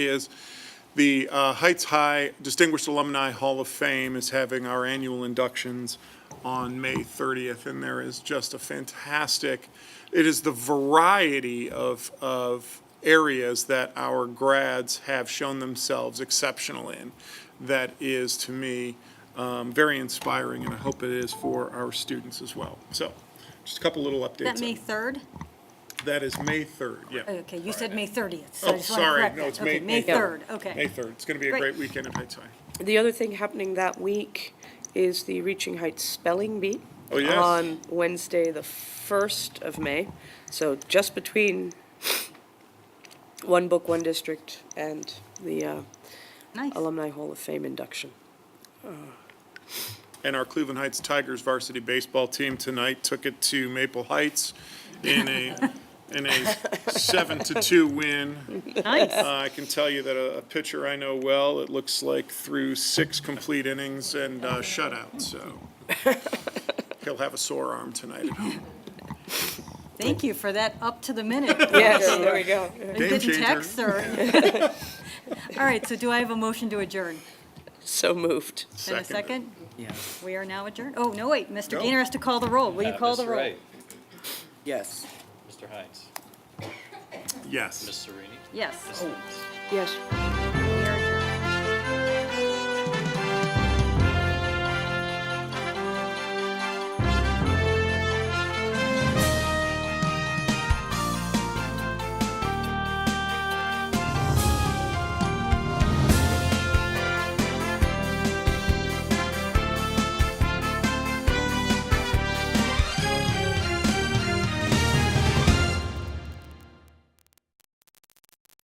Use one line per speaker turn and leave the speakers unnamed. is the uh, Heights High Distinguished Alumni Hall of Fame is having our annual inductions on May 30th, and there is just a fantastic, it is the variety of, of areas that our grads have shown themselves exceptional in that is, to me, um, very inspiring, and I hope it is for our students as well. So, just a couple little updates.
That May 3rd?
That is May 3rd, yeah.
Okay, you said May 30th. so I
Oh,
just wanna
sorry,
correct
no,
that.
it's
Okay,
May.
May 3rd,
May
okay.
3rd. It's going to be a
Great.
great weekend at Heights High.
The other thing happening that week is the Reaching Heights Spelling Bee.
Oh, yes.
On Wednesday, the 1st of May. So just between One Book, One District and the uh,
Nice.
Alumni Hall of Fame induction.
And our Cleveland Heights Tigers varsity baseball team tonight took it to Maple Heights in a, in a seven to two win.
Nice.
Uh, I can tell you that a a pitcher I know well, it looks like threw six complete innings and uh, shutout, so he'll have a sore arm tonight at home.
Thank you for that up to the minute.
Yes, there we go.
I'm
Game
getting
changer.
texts or- All right, so do I have a motion to adjourn?
So moved.
And a second? Yes. We are now adjourned. Oh, no, wait, Mr. Gainer has to call the roll. Will you
Uh,
call the
Mr.
roll?
Wright,
Yes.
Mr. Hines,
Yes.
Ms. Serini,
Yes.
Yes.
Mr.